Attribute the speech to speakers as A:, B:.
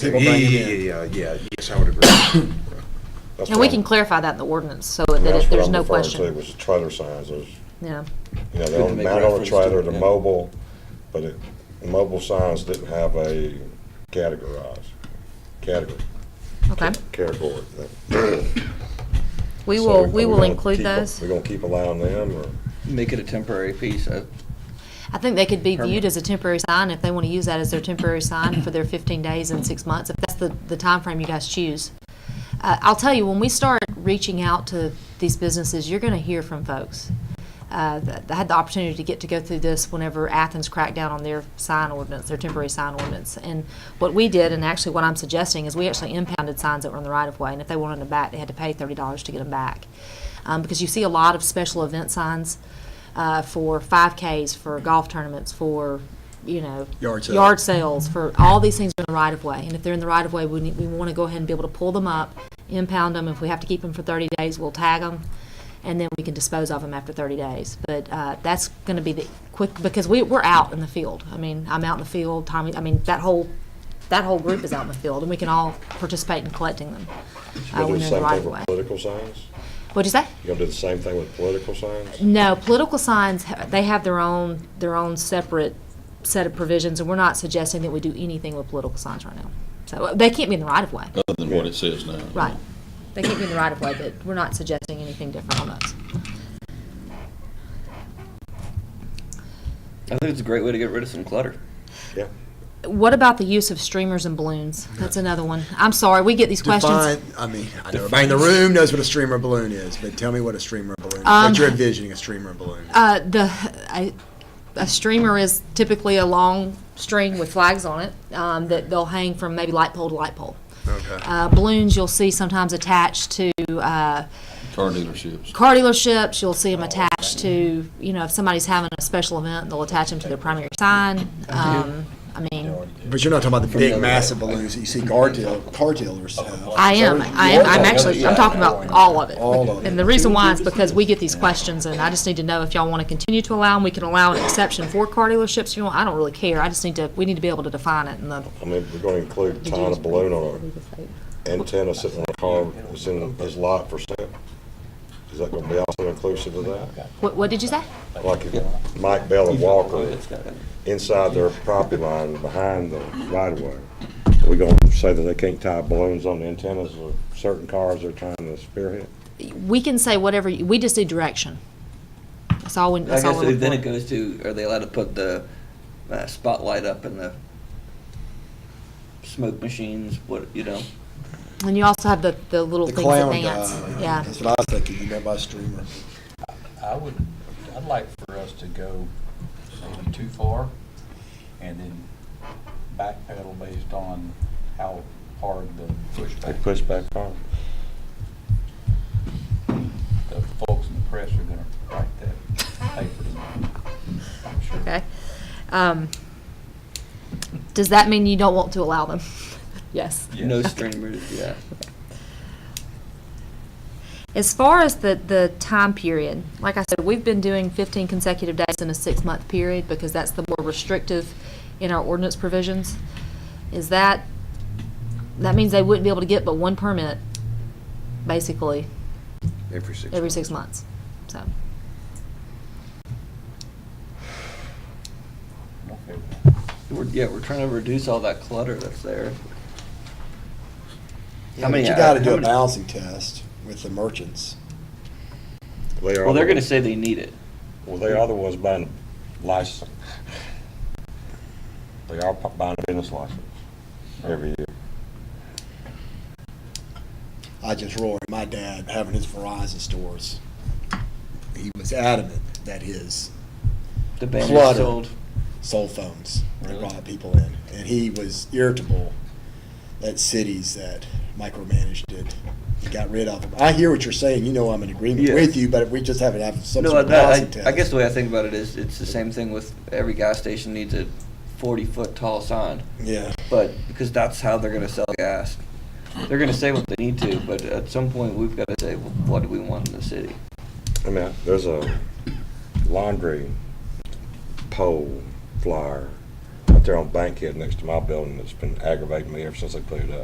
A: People
B: Yeah,
A: bring it
B: yeah,
A: in.
B: yeah, yeah, yeah, yes, I would agree. That's
C: And we
B: what
C: can
B: I'm-
C: clarify that in the ordinance so
D: And
C: that
D: that's
C: it-
D: what
C: there's
D: I'm
C: no
D: referring to,
C: question.
D: was the trailer signs, those, you
C: Yeah,
D: know,
A: Good
D: they're
A: to
D: on,
A: make
D: mounted on a
A: reference to it,
D: trailer, the
A: yeah.
D: mobile, but it, mobile signs didn't have a categorized, category,
C: okay.
D: category.
C: We
D: So
C: will,
D: are
C: we will
D: gonna
C: include
D: keep a-
C: those.
D: We're gonna keep allowing them, or?
A: Make it a temporary piece. I-
C: I think they could be
A: Permit.
C: viewed as a temporary sign if they want to use that as their temporary sign for their 15 days and six months, if that's the, the timeframe you guys choose. Uh, I'll tell you, when we start reaching out to these businesses, you're going to hear from folks. Uh, th- I had the opportunity to get to go through this whenever Athens cracked down on their sign ordinance, their temporary sign ordinance. And what we did, and actually what I'm suggesting, is we actually impounded signs that were in the right of way. And if they wanted them back, they had to pay $30 to get them back. Um, because you see a lot of special event signs uh, for 5Ks, for golf tournaments, for, you know,
A: Yard sale.
C: yard sales, for all these things are in the right of way. And if they're in the right of way, we, need, we want to go ahead and be able to pull them up, impound them. If we have to keep them for 30 days, we'll tag them, and then we can dispose of them after 30 days. But uh, that's going to be the quick because we, we're out in the field. I mean, I'm out in the field. Tommy, I mean, that whole that whole group is out in the field, and we can all participate in collecting them uh,
D: You're
C: when
D: gonna do the
C: they're in the
D: same
C: right
D: thing
C: of way.
D: with political signs?
C: What'd you say?
D: You're gonna do the same thing with political signs?
C: No, political signs, ha- they have their own, their own separate set of provisions, and we're not suggesting that we do anything with political signs right now. So, uh, they can't be in the right of way,
E: other than what it says now.
C: right? They can't be in the right of way, but we're not suggesting anything different on those.
A: I think it's a great way to get rid of some clutter.
D: Yeah.
C: What about the use of streamers and balloons? That's another one. I'm sorry, we get these questions.
A: Define-
F: I mean, I know everybody in the room knows what a streamer balloon is, but tell me what a streamer balloon,
C: Um,
F: what you're envisioning a streamer balloon.
C: Uh, the, I, a streamer is typically a long string with flags on it, um, that they'll hang from maybe light pole to light pole.
F: Okay.
C: Uh, balloons you'll see sometimes attached to, uh,
E: Car dealerships.
C: car dealerships, you'll
F: Oh,
C: see them attached to, you know, if somebody's having a special event, they'll attach them to their primary sign. Um, I mean,
F: But you're not talking about the big
A: the-
F: massive balloons that you see car deal, car dealers have.
C: I am, I am, I'm actually, I'm talking about all of it.
F: All of it.
C: And the reason why is because we get these questions, and I just need to know if y'all want to continue to allow them. We can allow an exception for car dealerships if you want. I don't really care. I just need to, we need to be able to define it in the.
D: I mean, we're gonna include tying a balloon on an antenna sitting on a car that's in his lot for sale. Is that gonna be also inclusive of that?
C: What, what did you say?
D: Like if Mike Bell and Walker,
A: It's got-
D: inside their property line, behind the right of way, we gonna say that they can't tie balloons on the antennas of certain cars they're trying to spearhead?
C: We can say whatever, you- we just need direction. That's all, we.
A: I
C: that's all we're
A: guess then it
C: looking for.
A: goes to, are they allowed to put the uh, spotlight up in the smoke machines, what, you know?
C: And you also have the, the little
F: The
C: things that
F: clown
C: dance.
F: guy.
C: Yeah.
F: That's what I was thinking, you meant by streamer.
G: I would, I'd like for us to go maybe too far and then backpedal based on how hard the
D: They
G: pushback.
D: push back car.
G: The folks in the press are gonna write that paper tomorrow, I'm sure.
C: Okay. Um, does that mean you don't want to allow them? yes.
A: No
G: Yes.
A: streamers, yeah.
C: As far as the, the time period, like I said, we've been doing 15 consecutive days in a six month period because that's the more restrictive in our ordinance provisions. Is that, that means they wouldn't be able to get but one permit, basically,
B: Every six.
C: every
B: months.
C: six months. So,
G: I'm okay with that.
A: We're, yeah, we're trying to reduce all that clutter that's there.
F: Yeah,
A: mean,
F: but you
A: I-
F: gotta
A: how
F: do a
A: many-
F: balancing test with the merchants.
D: They are
A: Well, they're
D: the-
A: gonna say they need it.
D: Well, they are the ones buying license. They are pu- buying a business license every year.
F: I just roared. My dad having his Verizon stores. He was adamant that his
A: The banner's
F: Clutter.
A: sold.
F: cell phones really?
G: Really?
F: brought people in, and he was irritable at cities that micromanaged it. and Got rid of them. I hear what you're saying. You know I'm in agreement
A: Yeah.
F: with you, but if we just haven't had some
A: No,
F: sort of
A: I,
F: policy
A: I,
F: test.
A: I guess the way I think about it is, it's the same thing with every gas station needs a forty-foot tall sign.
F: yeah.
A: but because that's how they're going to sell gas. They're going to say what they need to, but at some point we've got to say well, what do we want in the city.
D: I mean, there's a laundry pole flyer, a out there on Bankhead next to my building that's been aggravating me ever since they put it up.